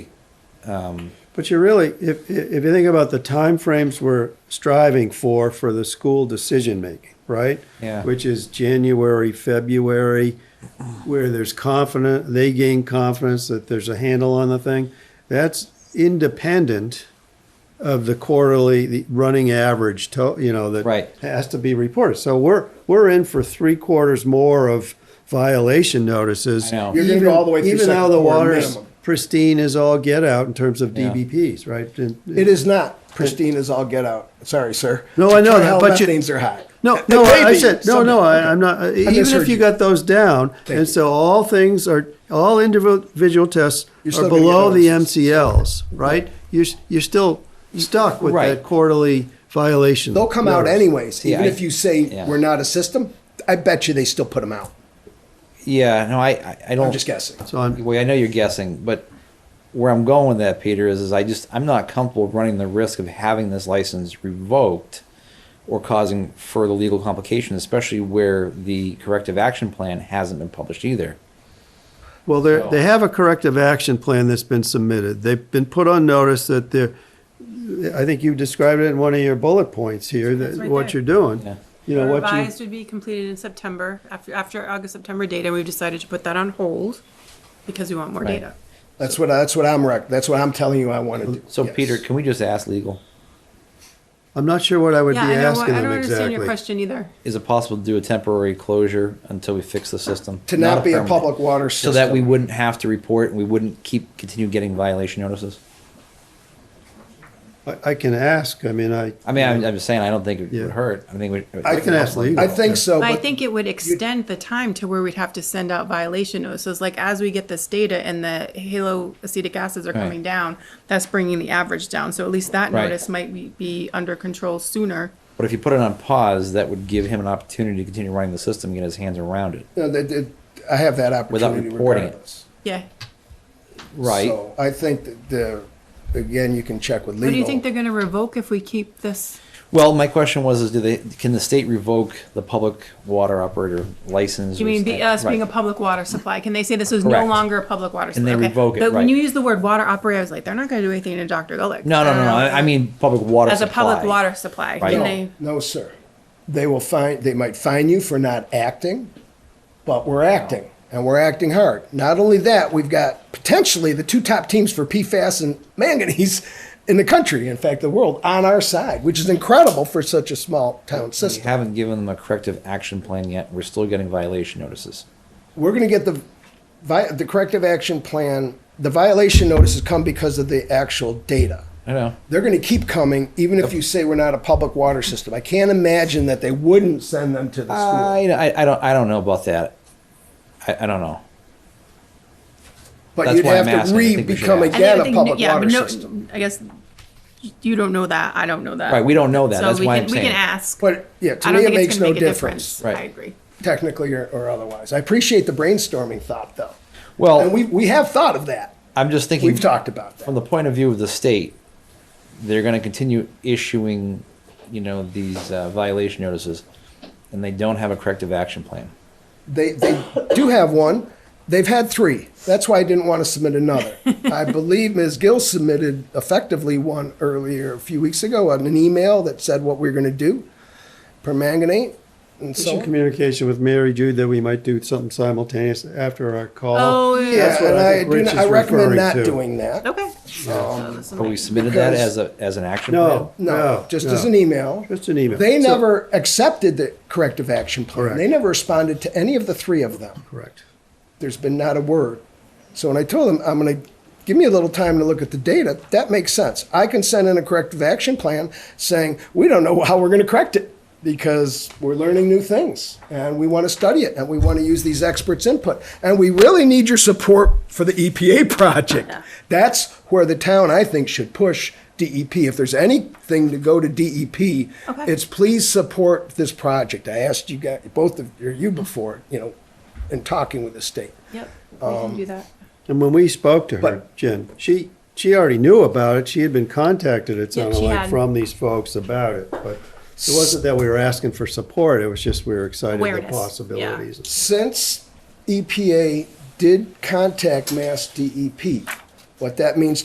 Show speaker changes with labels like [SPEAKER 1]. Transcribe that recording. [SPEAKER 1] But you really, if, if you think about the timeframes we're striving for, for the school decision-making, right?
[SPEAKER 2] Yeah.
[SPEAKER 1] Which is January, February, where there's confidence, they gain confidence that there's a handle on the thing. That's independent of the quarterly, the running average, to, you know, that
[SPEAKER 2] Right.
[SPEAKER 1] has to be reported. So we're, we're in for three quarters more of violation notices.
[SPEAKER 2] I know.
[SPEAKER 3] You're gonna go all the way through
[SPEAKER 1] Even though
[SPEAKER 3] second
[SPEAKER 1] the
[SPEAKER 3] quarter
[SPEAKER 1] water's
[SPEAKER 3] minimum.
[SPEAKER 1] pristine as all get out in terms of
[SPEAKER 2] Yeah.
[SPEAKER 1] DBPs, right? And-
[SPEAKER 3] It is not. Pristine is all get out. Sorry, sir.
[SPEAKER 1] No, I know that, but you-
[SPEAKER 3] Things are high.
[SPEAKER 1] No,
[SPEAKER 3] They
[SPEAKER 1] no,
[SPEAKER 3] may
[SPEAKER 1] I I
[SPEAKER 3] be
[SPEAKER 1] said, no, no,
[SPEAKER 3] someday.
[SPEAKER 1] I, I'm not, uh, even
[SPEAKER 3] misheard
[SPEAKER 1] if you
[SPEAKER 3] you.
[SPEAKER 1] got those down, and
[SPEAKER 3] you.
[SPEAKER 1] so all things are, all individual tests
[SPEAKER 3] You're
[SPEAKER 1] are
[SPEAKER 3] still gonna get
[SPEAKER 1] below the
[SPEAKER 3] notices.
[SPEAKER 1] MCLs, right? You're, s- you're still stuck with
[SPEAKER 2] Right.
[SPEAKER 1] that quarterly violation.
[SPEAKER 3] They'll come out
[SPEAKER 1] notice.
[SPEAKER 3] anyways. Even
[SPEAKER 2] Yeah, I-
[SPEAKER 3] if you say
[SPEAKER 2] yeah.
[SPEAKER 3] we're not a system, I bet you they still put them out.
[SPEAKER 2] Yeah, no, I, I, I don't.
[SPEAKER 3] I'm just guessing.
[SPEAKER 1] So I'm,
[SPEAKER 2] Well, I know you're guessing, but where I'm going with that, Peter, is, is I just I'm not comfortable running the risk of having this license revoked or causing further legal complications, especially where the corrective action plan hasn't been published either.
[SPEAKER 1] well, they they have a corrective action plan that's been submitted. They've been put on notice that they're, I think you described it in one of your bullet points here,
[SPEAKER 4] It's
[SPEAKER 1] that
[SPEAKER 4] right
[SPEAKER 1] what
[SPEAKER 4] there.
[SPEAKER 1] you're doing.
[SPEAKER 2] Yeah.
[SPEAKER 1] You know, what you,
[SPEAKER 4] Revised would be completed in September, after, after August, September data, we've decided to put that on hold because we want more
[SPEAKER 2] Right.
[SPEAKER 4] data.
[SPEAKER 3] That's what that's what I'm rec- that's what I'm telling you I want to do.
[SPEAKER 2] So,
[SPEAKER 3] Yes.
[SPEAKER 2] Peter, can we just ask legal?
[SPEAKER 1] I'm not sure what I would be
[SPEAKER 4] Yeah, I know, what-
[SPEAKER 1] asking
[SPEAKER 4] I don't
[SPEAKER 1] them
[SPEAKER 4] understand your
[SPEAKER 1] exactly.
[SPEAKER 4] question either.
[SPEAKER 2] Is it possible to do a temporary closure until we fix the system?
[SPEAKER 3] to not, be a
[SPEAKER 2] permanent.
[SPEAKER 3] public water
[SPEAKER 2] So
[SPEAKER 3] system.
[SPEAKER 2] that we wouldn't have to report and we wouldn't keep continue getting violation notices?
[SPEAKER 1] I, I can ask, I mean, I.
[SPEAKER 2] I mean, I'm, I'm just saying, I don't think it
[SPEAKER 1] Yeah.
[SPEAKER 2] would hurt. I think we.
[SPEAKER 3] I
[SPEAKER 1] can ask legal.
[SPEAKER 3] I think so.
[SPEAKER 1] Oh,
[SPEAKER 4] I
[SPEAKER 3] but-
[SPEAKER 4] think it would extend the time to where we'd have to send out violation notices, like as we get this data and the halo acetic acids are
[SPEAKER 2] Right.
[SPEAKER 4] coming down, that's bringing the average down, so at least that
[SPEAKER 2] Right.
[SPEAKER 4] notice might be, be under control sooner.
[SPEAKER 2] But if you put it on pause, that would give him an opportunity to continue running the system, and get his hands around it.
[SPEAKER 3] No, that- that- I have that
[SPEAKER 2] Without
[SPEAKER 3] opportunity
[SPEAKER 2] reporting it.
[SPEAKER 3] regardless.
[SPEAKER 4] Yeah,
[SPEAKER 3] So I think that the, again, you can check with legal.
[SPEAKER 4] what do you think they're gonna revoke if we keep this?
[SPEAKER 2] Well, my question was: Is do they can the state revoke the public water operator license?
[SPEAKER 4] You mean be, us being a
[SPEAKER 2] Right.
[SPEAKER 4] public water supply? Can they say this is no
[SPEAKER 2] Correct.
[SPEAKER 4] longer a public water
[SPEAKER 2] And
[SPEAKER 4] supply?
[SPEAKER 2] they
[SPEAKER 4] Okay.
[SPEAKER 2] revoke it,
[SPEAKER 4] But when
[SPEAKER 2] right.
[SPEAKER 4] you use the word water operator, I was like, they're not going to do anything to Dr. Gulick.
[SPEAKER 2] No, no, no, no. I, I mean public water.
[SPEAKER 4] as a public
[SPEAKER 2] supply.
[SPEAKER 4] water supply,
[SPEAKER 2] Right.
[SPEAKER 4] can
[SPEAKER 2] No.
[SPEAKER 4] they?
[SPEAKER 3] No, sir. They will find, they might fine you for not acting, but we're acting, and we're acting hard. Not only that, we've got potentially the two top teams for PFAS and manganese in the country, in fact, the world, on our side, which is incredible for such a small town
[SPEAKER 2] We
[SPEAKER 3] system.
[SPEAKER 2] haven't given them a corrective action plan yet. We're still getting violation notices.
[SPEAKER 3] We're gonna get the, vi- the corrective action plan, the violation notices come because of the actual data.
[SPEAKER 2] I know.
[SPEAKER 3] They're going to keep coming, even if you say we're not a public water system. I can't imagine that they wouldn't send them to the school.
[SPEAKER 2] I, I, I don't I don't know about that. I, I don't know.
[SPEAKER 3] But
[SPEAKER 2] that's
[SPEAKER 3] you'd
[SPEAKER 2] why I'm
[SPEAKER 3] have to
[SPEAKER 2] asking. I think we should
[SPEAKER 3] re-become
[SPEAKER 2] ask.
[SPEAKER 3] again a
[SPEAKER 4] think-
[SPEAKER 3] public
[SPEAKER 4] yeah,
[SPEAKER 3] water
[SPEAKER 4] but no-
[SPEAKER 3] system.
[SPEAKER 4] I guess you don't know that. I don't know that.
[SPEAKER 2] Right, we don't know that.
[SPEAKER 4] So
[SPEAKER 2] That's
[SPEAKER 4] we
[SPEAKER 2] why
[SPEAKER 4] can,
[SPEAKER 2] I'm
[SPEAKER 4] we
[SPEAKER 2] saying.
[SPEAKER 4] can ask.
[SPEAKER 3] But, yeah, to
[SPEAKER 4] I don't
[SPEAKER 3] me, it
[SPEAKER 4] think it's
[SPEAKER 3] makes
[SPEAKER 4] gonna
[SPEAKER 3] no
[SPEAKER 4] make a
[SPEAKER 3] difference,
[SPEAKER 2] Right.
[SPEAKER 4] I agree.
[SPEAKER 3] technically or, or otherwise. I appreciate the brainstorming thought, though.
[SPEAKER 2] Well-
[SPEAKER 3] And we, we have thought of that.
[SPEAKER 2] I'm just thinking.
[SPEAKER 3] We've talked about
[SPEAKER 2] from
[SPEAKER 3] that.
[SPEAKER 2] the point of view of the state, they're going to continue issuing, you know, these uh, violation notices, and they don't have a corrective action plan.
[SPEAKER 3] They, they do have one. They've had three. That's why I didn't want to submit another. I believe Ms. Gill submitted effectively one earlier, a few weeks ago, on an email that said what we are going to do, permanganate and so
[SPEAKER 1] Some
[SPEAKER 3] on.
[SPEAKER 1] communication with Mary Jude that we might do something simultaneous after our call.
[SPEAKER 4] Oh, yeah.
[SPEAKER 3] Yeah,
[SPEAKER 1] That's what
[SPEAKER 3] and
[SPEAKER 1] I
[SPEAKER 3] I,
[SPEAKER 1] think
[SPEAKER 3] do
[SPEAKER 1] Rich
[SPEAKER 3] not,
[SPEAKER 1] is
[SPEAKER 3] I recommend
[SPEAKER 1] referring
[SPEAKER 3] not
[SPEAKER 1] to.
[SPEAKER 3] doing that.
[SPEAKER 4] Okay. So this
[SPEAKER 2] But we
[SPEAKER 4] might-
[SPEAKER 2] submitted that as
[SPEAKER 3] Because-
[SPEAKER 2] a as an action plan.
[SPEAKER 1] No,
[SPEAKER 3] No,
[SPEAKER 1] no.
[SPEAKER 3] just e-
[SPEAKER 1] no.
[SPEAKER 3] as an email.
[SPEAKER 1] Just an email.
[SPEAKER 3] They
[SPEAKER 1] So-
[SPEAKER 3] never accepted the corrective action plan.
[SPEAKER 1] Correct.
[SPEAKER 3] They never responded to any of the three of them.
[SPEAKER 1] Correct.
[SPEAKER 3] There's been not a word. So when I told them, I'm going to give me a little time to look at the data, that makes sense. I can send in a corrective action plan saying, we don't know how we're going to correct it because we're learning new things and we want to study it and we want to use these experts' input. And we really need your support for the EPA project. That's where the town, I think, should push DEP. If there's anything to go to DEP, it's please support this project. I asked you guys, both of or you before, you know, in talking with the state.
[SPEAKER 4] Yep, we can
[SPEAKER 3] um,
[SPEAKER 4] do that.
[SPEAKER 1] And when we spoke to her,
[SPEAKER 3] But-
[SPEAKER 1] Jen, she, she already knew about it. She had been contacted, it
[SPEAKER 4] Yeah,
[SPEAKER 1] sounded
[SPEAKER 4] she
[SPEAKER 1] like,
[SPEAKER 4] had.
[SPEAKER 1] from these folks about it. But it wasn't that we were asking for support, it was just we were excited at the
[SPEAKER 4] Awareness, yeah.
[SPEAKER 1] possibilities.
[SPEAKER 3] E Since EPA did contact Mass DEP, E what that means